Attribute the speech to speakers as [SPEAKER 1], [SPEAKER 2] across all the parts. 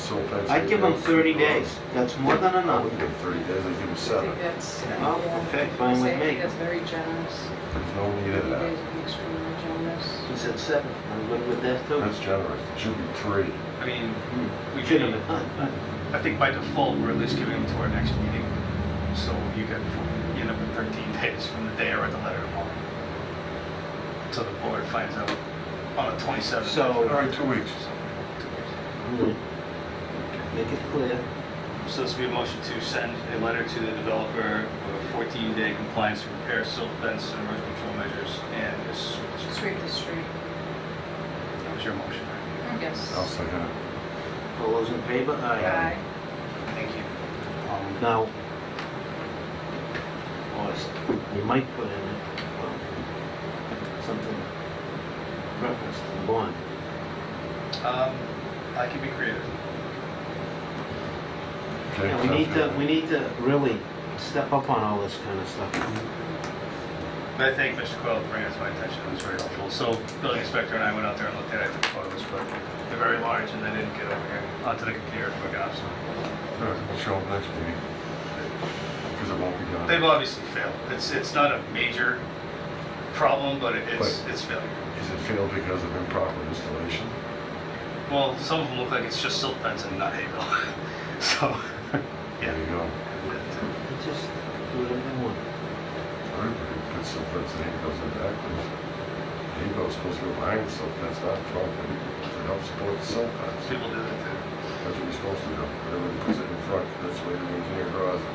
[SPEAKER 1] so offensive.
[SPEAKER 2] I'd give them 30 days, that's more than
[SPEAKER 1] I
[SPEAKER 2] enough.
[SPEAKER 1] wouldn't give them thirty days, I'd give them
[SPEAKER 3] I
[SPEAKER 1] seven.
[SPEAKER 3] think that's,
[SPEAKER 2] Oh, okay,
[SPEAKER 3] I
[SPEAKER 2] fine
[SPEAKER 3] say I
[SPEAKER 2] with
[SPEAKER 3] think
[SPEAKER 2] me.
[SPEAKER 3] that's very generous.
[SPEAKER 1] There's no need
[SPEAKER 3] You
[SPEAKER 1] of
[SPEAKER 3] guys
[SPEAKER 1] that.
[SPEAKER 3] would be extremely generous.
[SPEAKER 2] He said seven, I'm good with that too.
[SPEAKER 1] That's generous. It should be three.
[SPEAKER 4] I mean, we
[SPEAKER 2] Should have
[SPEAKER 4] should,
[SPEAKER 2] been done.
[SPEAKER 4] I think by default, we're at least giving them to our next meeting. So you get, you end up with 13 days from the day I write the letter tomorrow. So the board finds out on the 27th.
[SPEAKER 1] All
[SPEAKER 2] So-
[SPEAKER 1] right, two weeks.
[SPEAKER 2] Make it clear.
[SPEAKER 4] So this would be a motion to send a letter to the developer of 14-day compliance to repair silt fence and erosion control measures and this,
[SPEAKER 3] Sweep the street.
[SPEAKER 4] that was your motion, right?
[SPEAKER 3] Yes.
[SPEAKER 1] I'll uh, second it.
[SPEAKER 2] All those in favor? Aye.
[SPEAKER 3] Aye.
[SPEAKER 4] Thank you. Um,
[SPEAKER 2] Now, or s- we might put in um, something reference to the bond.
[SPEAKER 4] Um, I can be creative.
[SPEAKER 1] Okay,
[SPEAKER 2] Yeah, we
[SPEAKER 1] sounds
[SPEAKER 2] need to,
[SPEAKER 1] good.
[SPEAKER 2] we need to really step up on all this kind of stuff.
[SPEAKER 4] But I thank Mr. Coyle for bringing it to my attention, it was very helpful. So building inspector and I went out there and looked at it, I took photos, but they're very large and they didn't get over here onto the computer quick enough, so.
[SPEAKER 1] All right, We'll show them next meeting. Because it won't be done.
[SPEAKER 4] They've obviously failed. It's, it's not a major problem, but it- it's,
[SPEAKER 1] But-
[SPEAKER 4] it's failure.
[SPEAKER 1] Is it failed because of improper installation?
[SPEAKER 4] Well, some of them look like it's just silt fence and not hay bale. So,
[SPEAKER 1] There
[SPEAKER 4] yeah.
[SPEAKER 1] you go.
[SPEAKER 2] It's Just do whatever you want.
[SPEAKER 1] Everybody puts some fence and he goes in backwards. He goes supposed to go behind the silt fence, not in front of it. To help support the silt fence.
[SPEAKER 4] People do that too.
[SPEAKER 1] That's what you're supposed to do. Everybody puts it in front, that's the way the engineer draws it.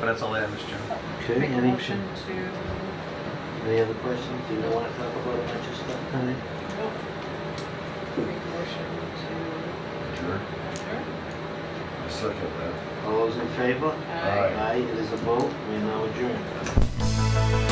[SPEAKER 4] But that's all I have, Mr. Chairman.
[SPEAKER 2] Okay,
[SPEAKER 3] Make a
[SPEAKER 2] any,
[SPEAKER 3] motion to,
[SPEAKER 2] any other questions? Do you want to talk about a bunch of stuff tonight?
[SPEAKER 3] make a motion
[SPEAKER 1] Sure.
[SPEAKER 3] to adjourn.
[SPEAKER 1] I second that.
[SPEAKER 2] All those in favor?
[SPEAKER 3] Aye.
[SPEAKER 1] Aye.
[SPEAKER 2] Aye, it is a vote, we now adjourn.